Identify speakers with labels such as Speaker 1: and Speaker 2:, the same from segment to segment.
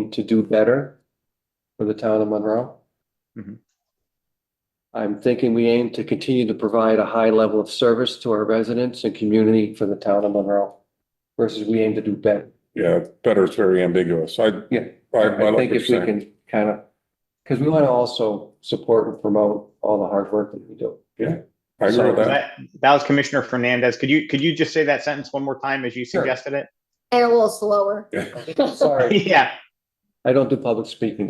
Speaker 1: looking to do better for the town of Monroe. Mm-hmm.
Speaker 2: Mhm.
Speaker 1: I'm thinking we aim to continue to provide a high level of service to our residents and community for the town of Monroe versus we aim to do better.
Speaker 3: Yeah, better is very ambiguous. I.
Speaker 1: Yeah.
Speaker 3: I,
Speaker 1: I
Speaker 3: like
Speaker 1: think
Speaker 3: what
Speaker 1: if we
Speaker 3: you're saying.
Speaker 1: can kind of, because we want to also support and promote all the hard work that we do.
Speaker 3: I agree
Speaker 2: So
Speaker 3: with that.
Speaker 2: that, that was Commissioner Fernandez. Could you, could you just say that sentence one more time as you
Speaker 1: Sure.
Speaker 2: suggested it?
Speaker 4: And a little slower.
Speaker 1: Sorry,
Speaker 2: Yeah,
Speaker 1: I don't do public speaking.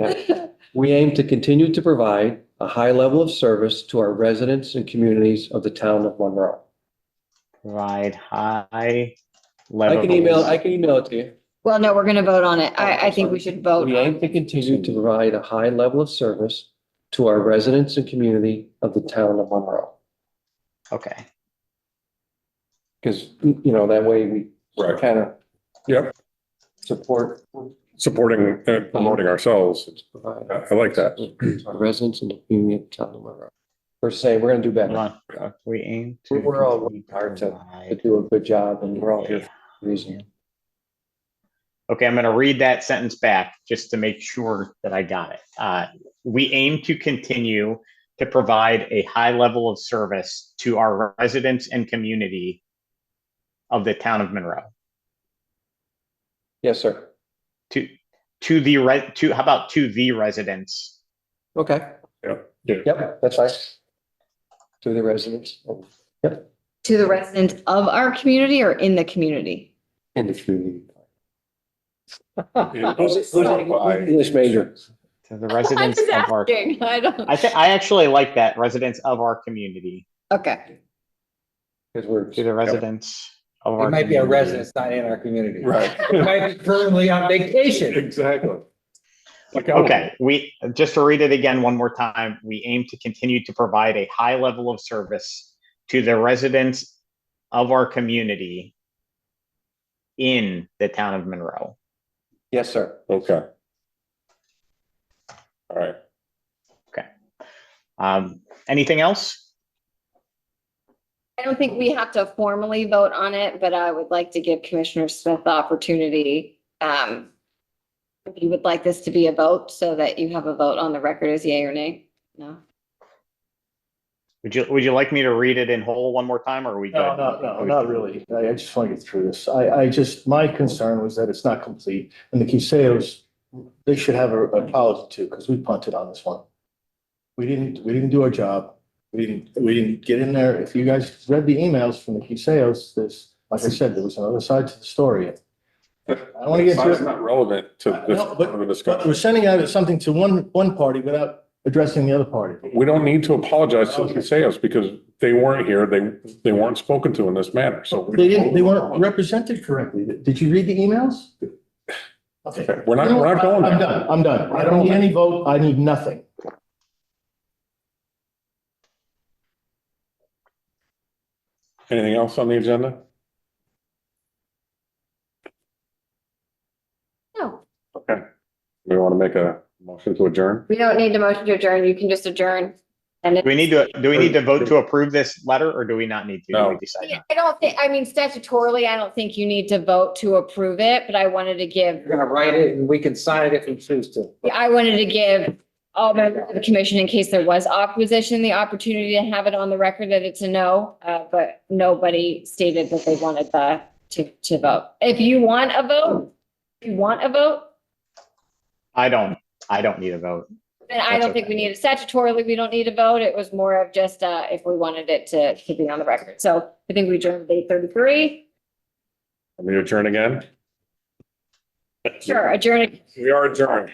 Speaker 1: We aim to continue to provide a high level of service to our residents and communities of the town of Monroe.
Speaker 2: provide high
Speaker 1: I
Speaker 2: level.
Speaker 1: can email, I can email it to you.
Speaker 4: Well, no, we're gonna vote on it. I, I think we should vote.
Speaker 1: We aim to continue to provide a high level of service to our residents and community of the town of Monroe.
Speaker 2: Okay,
Speaker 1: Because, you know, that way we
Speaker 3: Right.
Speaker 1: kind of
Speaker 3: Yep.
Speaker 1: support,
Speaker 3: Supporting
Speaker 1: Uh-huh.
Speaker 3: and promoting ourselves.
Speaker 1: provide
Speaker 3: I I like that.
Speaker 1: to our residents and the community of the town of Monroe. We're saying we're gonna do
Speaker 2: hold
Speaker 1: better,
Speaker 2: on. Uh, We aim. to
Speaker 1: We're- we're all
Speaker 2: continue to
Speaker 1: hard to- to
Speaker 2: provide-
Speaker 1: do a good job and we're all here for a reason.
Speaker 2: Okay, I'm going to read that sentence back just to make sure that I got it. Uh, We aim to continue to provide a high level of service to our residents and community of the town of Monroe.
Speaker 1: Yes, sir.
Speaker 2: To, to the, re- to, how about to the residents
Speaker 1: Okay.
Speaker 3: Yep.
Speaker 1: Yep, that's fine. To the residents and-
Speaker 4: To the residents of our community or in the community?
Speaker 1: and the community.
Speaker 3: It
Speaker 1: Who's-
Speaker 3: does
Speaker 1: who's an
Speaker 3: clarify-
Speaker 1: English major.
Speaker 2: To the residents of our,
Speaker 4: I
Speaker 2: I
Speaker 4: don't.
Speaker 2: think, I actually like that, residents of our community,
Speaker 4: Okay,
Speaker 1: Because we're,
Speaker 2: to the residents of our.
Speaker 5: It might be a
Speaker 2: community.
Speaker 5: residence, not in our community. It
Speaker 3: Right.
Speaker 5: might be currently on vacation.
Speaker 3: Exactly. Like, I don't-
Speaker 2: Okay, we, just to read it again one more time, we aim to continue to provide a high level of service to the residents of our community in the town of Monroe.
Speaker 1: yes, sir.
Speaker 3: Okay. All right.
Speaker 2: Um, anything else?
Speaker 4: I don't think we have to formally vote on it, but I would like to give Commissioner Smith the opportunity. Um, if you would like this to be a vote so that you have a vote on the record as yay or nay? No?
Speaker 2: Would you, would you like me to read it in whole one more time or are we?
Speaker 6: No,
Speaker 2: good?
Speaker 6: no, no, not really. I, I just want to get through this. I, I just, my concern was that it's not complete. And the Kiseos, they should have a a apology too, because we punted on this one. We didn't, we didn't do our job. We didn't, we didn't get in there. If you guys read the emails from the Kiseos, this, like I said, there was another side to the story. I don't want to get into
Speaker 3: It's
Speaker 6: it.
Speaker 3: not relevant to this
Speaker 6: No,
Speaker 3: part
Speaker 6: but-
Speaker 3: of the
Speaker 6: But we're
Speaker 3: discussion.
Speaker 6: sending out something to one, one party without addressing the other party.
Speaker 3: We don't need to apologize to the Casellas because they weren't here. They, they weren't spoken to in this manner. So. we-
Speaker 6: They didn't, they weren't represented correctly. Did you read the emails? Okay.
Speaker 3: Okay, We're not, we're not going there.
Speaker 6: I'm done, I'm done. I don't need any vote, I need nothing.
Speaker 3: Anything else on the agenda?
Speaker 4: No,
Speaker 3: Okay. We want to make a motion to adjourn?
Speaker 4: we don't need a motion to adjourn. You can just adjourn. And
Speaker 2: Do we need to, do we need to vote to approve this letter or do we not need to? Do we
Speaker 3: No.
Speaker 2: decide
Speaker 4: Yeah,
Speaker 2: not?
Speaker 4: I don't think, I mean, statutorily, I don't think you need to vote to approve it, but I wanted to give,
Speaker 5: You're gonna write it and we can sign it if we choose to.
Speaker 4: I wanted to give all members of the commission, in case there was opposition, the opportunity to have it on the record that it's a no, uh, but nobody stated that they wanted the, to, to vote. If you want a vote, if you want a vote,
Speaker 2: I don't, I don't need a vote.
Speaker 4: then I
Speaker 2: That's
Speaker 4: don't think
Speaker 2: okay.
Speaker 4: we need, statutorily, we don't need a vote. It was more of just, uh, if we wanted it to, to be on the record. So I think we adjourned at eight thirty-three.
Speaker 3: Let me adjourn again.
Speaker 4: Sure, adjourn.
Speaker 3: We are adjourned.